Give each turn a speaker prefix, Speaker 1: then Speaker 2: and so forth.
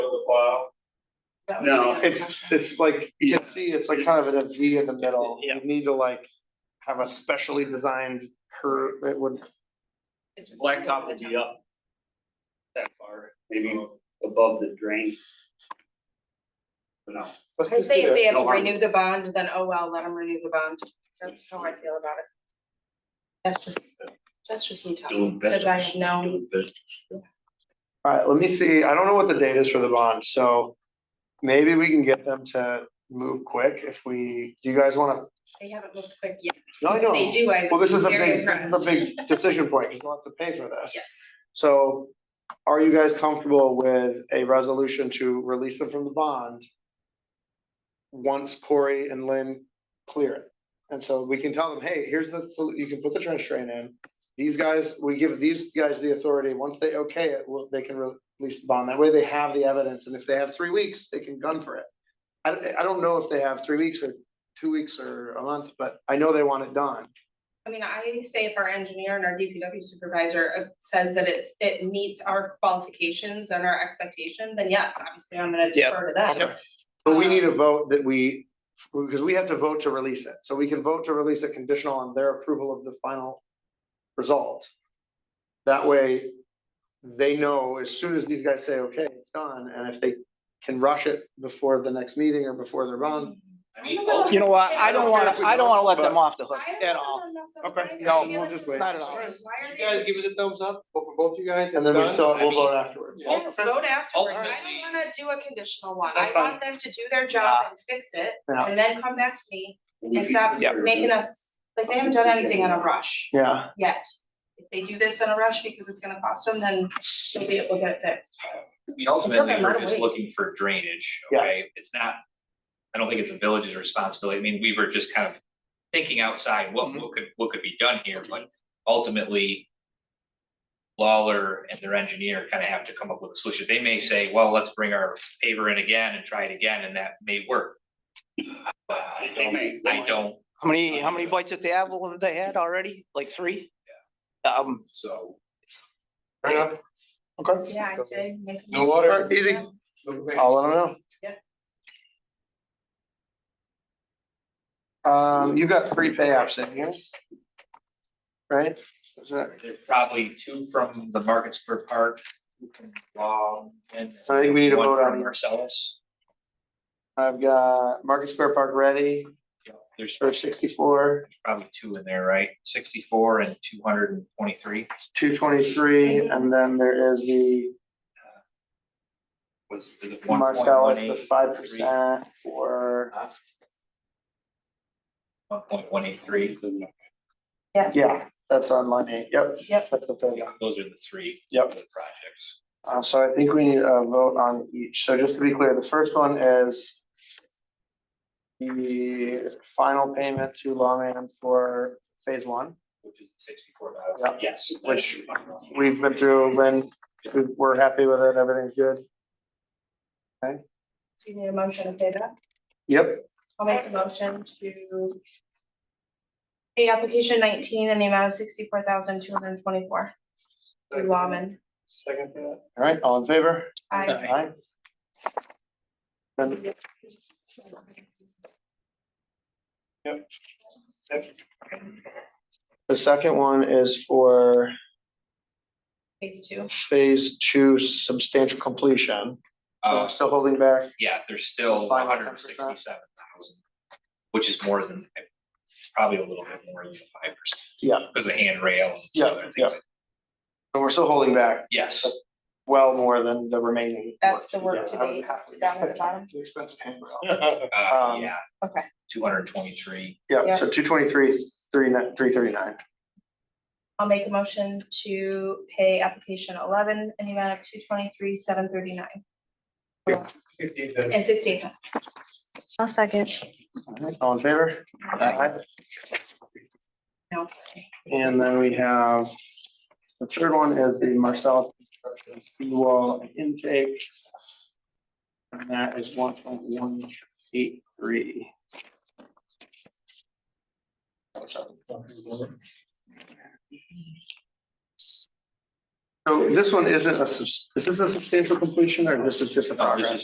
Speaker 1: uh,
Speaker 2: That would be
Speaker 1: No.
Speaker 2: my
Speaker 3: It's,
Speaker 2: impression.
Speaker 3: it's like, you can see, it's like kind of in a V in the middle.
Speaker 1: Yeah.
Speaker 3: You need to like have a specially designed curve, it would,
Speaker 2: It's just
Speaker 1: Blacktop will
Speaker 2: over the
Speaker 1: be
Speaker 2: top.
Speaker 1: up. That far, maybe above the drain. But no,
Speaker 3: let's
Speaker 2: I
Speaker 3: just
Speaker 2: say
Speaker 3: do
Speaker 2: if they
Speaker 3: that.
Speaker 2: have
Speaker 1: No
Speaker 2: to
Speaker 1: harm.
Speaker 2: renew the bond, then oh well, let them renew the bond. That's how I feel about it. That's just, that's just me talking, because I have no,
Speaker 3: Alright, let me see, I don't know what the date is for the bond, so maybe we can get them to move quick if we, do you guys wanna?
Speaker 2: they haven't moved quick yet.
Speaker 3: No, I
Speaker 2: If
Speaker 3: know.
Speaker 2: they do, I
Speaker 3: Well,
Speaker 2: would
Speaker 3: this
Speaker 2: be
Speaker 3: is a
Speaker 2: very
Speaker 3: big, this
Speaker 2: impressed.
Speaker 3: is a big decision point, because they'll have to pay for this.
Speaker 2: Yes.
Speaker 3: So are you guys comfortable with a resolution to release them from the bond? Once Corey and Lynn clear it, and so we can tell them, hey, here's the, so you can put the trench drain in. These guys, we give these guys the authority, once they okay it, well, they can release the bond, that way they have the evidence, and if they have three weeks, they can gun for it. I I don't know if they have three weeks or two weeks or a month, but I know they want it done.
Speaker 2: I mean, I say if our engineer and our DPW supervisor uh, says that it's, it meets our qualifications and our expectation, then yes, obviously I'm gonna
Speaker 1: Yeah.
Speaker 2: defer to them.
Speaker 3: Okay. But we need a vote that we, because we have to vote to release it, so we can vote to release it conditional on their approval of the final result. That way, they know as soon as these guys say, okay, it's done, and if they can rush it before the next meeting or before they're run.
Speaker 1: I mean,
Speaker 2: I know.
Speaker 1: ultimately,
Speaker 4: You know what, I don't wanna, I don't wanna let them
Speaker 3: But-
Speaker 4: off the hook
Speaker 2: I don't
Speaker 4: at
Speaker 2: know
Speaker 4: all.
Speaker 2: enough about
Speaker 3: Okay,
Speaker 2: it.
Speaker 4: no,
Speaker 2: I feel
Speaker 3: we'll
Speaker 2: like
Speaker 3: just
Speaker 2: it's
Speaker 3: wait.
Speaker 4: Not at all.
Speaker 2: Why are
Speaker 5: You guys
Speaker 2: they?
Speaker 5: give it a thumbs up, both for both you guys.
Speaker 3: And then we
Speaker 5: it's
Speaker 3: still,
Speaker 5: done.
Speaker 3: we'll vote afterwards.
Speaker 2: Yes, vote afterward. I
Speaker 1: Ultimately-
Speaker 2: don't wanna do a conditional one. I
Speaker 3: That's
Speaker 2: want them to do their job and fix it
Speaker 3: Yeah.
Speaker 2: and then come back to me and
Speaker 1: It's
Speaker 2: stop
Speaker 1: not
Speaker 2: making us, like, they haven't done anything in a rush
Speaker 3: Yeah,
Speaker 2: yet. If they do this in a rush because it's gonna cost them, then we'll be able to get it fixed.
Speaker 6: I mean, ultimately,
Speaker 2: okay,
Speaker 6: we're
Speaker 2: not
Speaker 6: just
Speaker 2: wait.
Speaker 6: looking for drainage,
Speaker 3: Yeah.
Speaker 6: okay? It's not, I don't think it's a village's responsibility. I mean, we were just kind of thinking outside,
Speaker 1: Mm-hmm.
Speaker 6: what, what could, what could be done here, but ultimately Lawler and their engineer kind of have to come up with a solution. They may say, well, let's bring our paver in again and try it again, and that may work. But I
Speaker 1: They may,
Speaker 6: don't, I don't,
Speaker 4: How many, how many bites at the apple have they had already? Like three? Um,
Speaker 6: so.
Speaker 3: fair enough. Okay,
Speaker 2: Yeah, I say make.
Speaker 5: No water.
Speaker 3: Alright, easy, I'll let them know.
Speaker 2: Yeah.
Speaker 3: Um, you got three pay apps in here. Right? Is that-
Speaker 6: There's probably two from the Market Square Park, two from Long, and.
Speaker 3: So I think we need to
Speaker 6: one
Speaker 3: vote on
Speaker 6: from
Speaker 3: it.
Speaker 6: Marcellus.
Speaker 3: I've got Market Square Park ready
Speaker 6: There's
Speaker 3: for sixty-four,
Speaker 6: there's probably two in there, right? Sixty-four and two hundred and twenty-three.
Speaker 3: two twenty-three, and then there is the
Speaker 6: Was the one point one
Speaker 3: Marcellus, the
Speaker 6: eight?
Speaker 3: five percent for,
Speaker 6: One point one eight three.
Speaker 3: yeah, that's on line eight, yep.
Speaker 2: Yep.
Speaker 3: That's the thing.
Speaker 6: Those are the three.
Speaker 3: Yep.
Speaker 6: of the Projects.
Speaker 3: Uh, so I think we need a vote on each. So just to be clear, the first one is the final payment to Lawman for phase one.
Speaker 6: Which is sixty-four
Speaker 3: Yeah.
Speaker 6: thousand. Yes.
Speaker 3: Which- We've been through, Lynn, we- we're happy with it, everything's good.
Speaker 2: Do you need a motion to pay that?
Speaker 3: Yep,
Speaker 2: I'll make a motion to pay application nineteen in the amount of sixty-four thousand two hundred and twenty-four to Lawman.
Speaker 5: Second for that.
Speaker 3: all right, all in favor?
Speaker 2: I,
Speaker 3: Aye. And the second one is for
Speaker 2: phase two.
Speaker 3: phase two substantial completion. So
Speaker 6: Uh,
Speaker 3: we're still holding back.
Speaker 6: yeah, there's still
Speaker 3: Five
Speaker 6: one
Speaker 3: or 10%.
Speaker 6: hundred and sixty-seven thousand, which is more than, probably a little bit more than five percent.
Speaker 3: Yeah.
Speaker 6: Because the handrail and
Speaker 3: Yeah,
Speaker 6: some other things.
Speaker 3: So we're still holding back
Speaker 6: Yes.
Speaker 3: well more than the remaining.
Speaker 2: That's the work to
Speaker 3: Yeah.
Speaker 2: be, down at the bottom.
Speaker 3: It's an expensive handrail.
Speaker 6: Uh,
Speaker 3: Um,
Speaker 6: yeah.
Speaker 2: okay.
Speaker 6: Two hundred and twenty-three.
Speaker 3: Yeah,
Speaker 2: Yeah.
Speaker 3: so two twenty-three, three, three thirty-nine.
Speaker 2: I'll make a motion to pay application eleven in the amount of two twenty-three, seven thirty-nine
Speaker 5: Fifteen then.
Speaker 2: and sixteen cents. I'll second.
Speaker 3: All in favor? Aye.
Speaker 2: No, sorry.
Speaker 3: And then we have, the third one is the Marcellus construction seawall intake. And that is one point one eight three. So this one isn't a, subs- is this a substantial completion or this is just a
Speaker 6: No, this
Speaker 3: progress?
Speaker 6: Oh, is